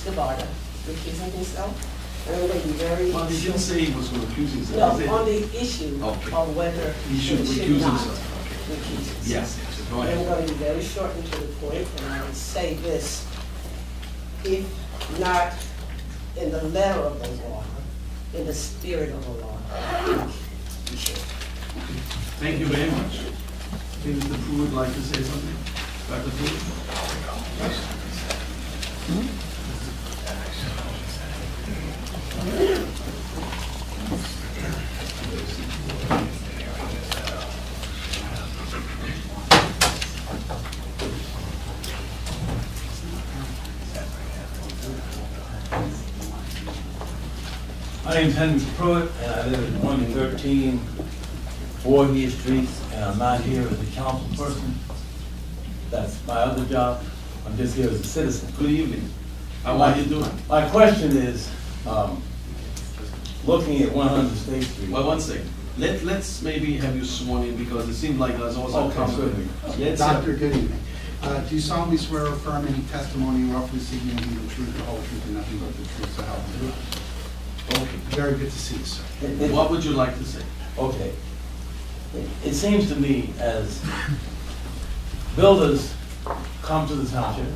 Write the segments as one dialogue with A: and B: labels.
A: Gabata recusing himself. And I'm going to be very
B: Well, he didn't
A: sure.
B: say he was going to accuse himself.
A: No,
B: He said
A: on the issue
B: Okay.
A: of whether
B: He should
A: it
B: recuse
A: not
B: himself. Okay.
A: recuse himself.
B: Yes, yes, so go
A: I'm
B: ahead.
A: going to be very short and to the point, and I would say this. If not in the letter of the law, in the spirit of the law, you should.
B: Thank you very much. I think Mr. Pruitt would like to say something. Dr. Pruitt?
C: My name's Henry Pruitt, and I live at one thirteen Voorhees Street, and I'm not here as a council person. That's my other job. I'm just here as a citizen.
B: Good evening. How are you doing?
C: My question is, um, looking at one hundred State Street.
B: Well, one second. Let, let's maybe have you sworn in because it seemed like there's also
C: Okay,
B: conflict.
C: good.
B: Let's have-
D: Doctor, good evening. Uh, Do you solemnly swear or affirm any testimony you offer this evening will be the truth, the whole truth, and nothing but the truth, so help you God?
B: Okay.
D: Very good to see you, sir.
C: It- it-
B: What would you like to say?
C: Okay. It- It seems to me as builders come to the township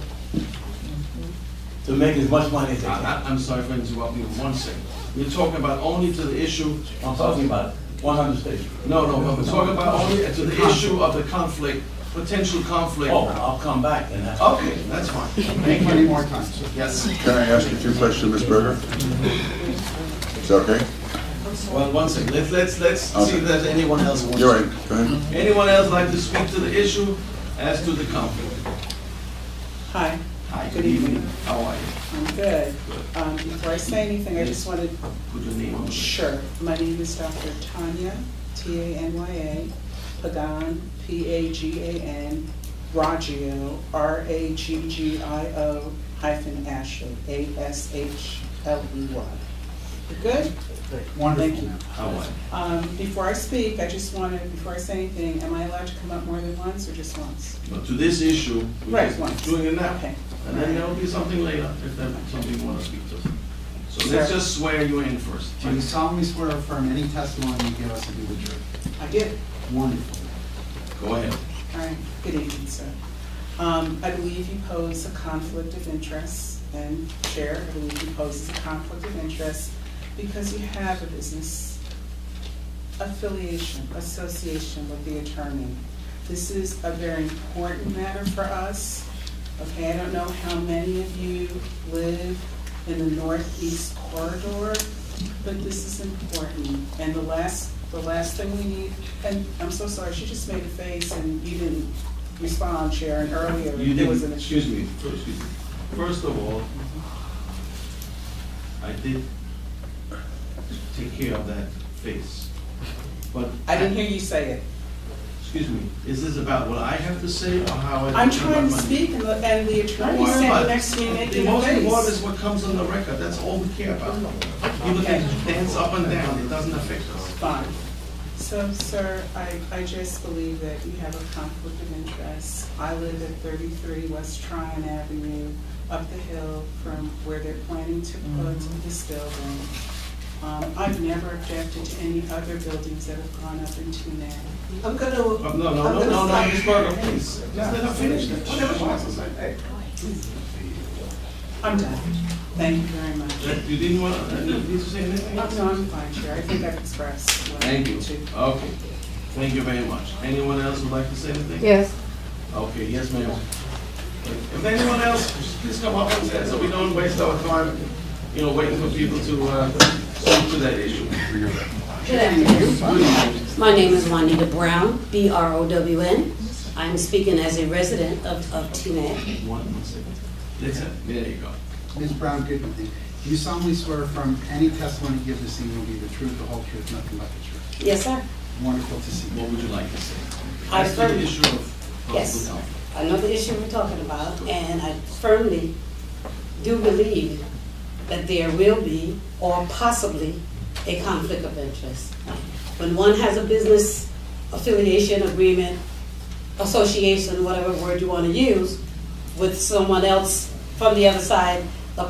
C: to make as much money as they
B: I-
C: can.
B: I- I'm sorry for interrupting you. One second. We're talking about only to the issue.
C: I'm talking about one hundred State Street.
B: No, no, but we're talking about only to the issue of the conflict, potential conflict.
C: Oh, I'll come back and that's.
B: Okay, that's fine.
D: Thank you. Any more time, sir?
B: Yes.
E: Can I ask you two questions, Ms. Berger? Is that okay?
B: Well, one second. Let's, let's, let's see
E: Okay.
B: if there's anyone else who wants
E: You're
B: to-
E: right, go ahead.
B: Anyone else like to speak to the issue as to the conflict?
F: Hi,
B: Hi,
F: Good evening.
B: How are you?
F: I'm good. Um, Before I say anything, I just wanted,
B: Put your name on the sh-
F: sure, my name is Dr. Tanya, T-A-N-Y-A, Pagan, P-A-G-A-N, Raggio, R-A-G-G-I-O hyphen Ashley, A-S-H-L-E-Y. E You Good?
D: Wonderful.
F: Thank you.
D: ma'am.
B: How are you?
F: Um, Before I speak, I just wanted, before I say anything, am I allowed to come up more than once or just once?
B: But to this issue, we're
F: Right,
B: just
F: once.
B: doing it now.
F: Okay.
B: And then there'll be something later if there's something you want to speak to. So let's
F: Sir.
B: just swear you in first.
D: Do you solemnly swear or affirm any testimony you give us will be the truth?
F: I did.
D: Wonderful.
B: Go ahead.
F: All right, good evening, sir. Um, I believe you pose a conflict of interest, and Chair, I believe you pose a conflict of interest because you have a business affiliation, association with the attorney. This is a very important matter for us. Okay, I don't know how many of you live in the northeast corridor, but this is important. And the last, the last thing we need, and I'm so sorry, she just made a face and you didn't respond, Sharon, earlier.
B: You
F: There was an
B: didn't,
F: issue.
B: excuse me, first, excuse me. First of all, I did take care of that face. But.
F: I didn't hear you say it.
B: Excuse me, is this about what I have to say or how I?
F: I'm
B: feel
F: trying
B: about
F: to
B: my-
F: speak and the, and the
B: Don't
F: attorney
B: worry about
F: standing
B: it.
F: next to me
B: The
F: making a
B: most important is
F: face.
B: what comes on the record, that's all we care about. People can dance up and down, it doesn't affect us.
F: Fine. So, sir, I, I just believe that you have a conflict of interest. I live at thirty-three West Tryon Avenue, up the hill from where they're planning to put
B: Mm-hmm.
F: this building. Um, I've never objected to any other buildings that have gone up into now.
A: I'm going to,
B: Oh, No, no,
A: I'm
B: no,
A: gonna
B: no, no,
A: stop.
B: Ms. Berger, please, just let her finish, whatever she wants to say.
F: I'm done. Thank you very much.
B: That- You didn't want, uh, did you say anything?
F: Uh, No, I'm fine, Chair. I think I've expressed what I
B: Thank you,
F: need to.
B: okay, thank you very much. Anyone else would like to say anything?
G: Yes,
B: Okay, yes, ma'am. If anyone else, please come up and say, so we don't waste our time, you know, waiting for people to, uh, speak to that issue.
H: Good afternoon. My name is Juanita Brown, B-R-O-W-N. I'm speaking as a resident of, of Teaneck.
B: One, one second. That's it, there you go.
D: Ms. Brown, good evening. Do you solemnly swear or affirm any testimony you give this evening will be the truth, the whole truth, nothing but the truth?
H: Yes, sir.
D: Wonderful to see you.
B: What would you like to say?
H: I
B: As to the
H: firm-
B: issue of
H: Yes.
B: possible conflict.
H: I know the issue we're talking about, and I firmly do believe that there will be, or possibly, a conflict of interest. When one has a business affiliation agreement, association, whatever word you want to use, with someone else from the other side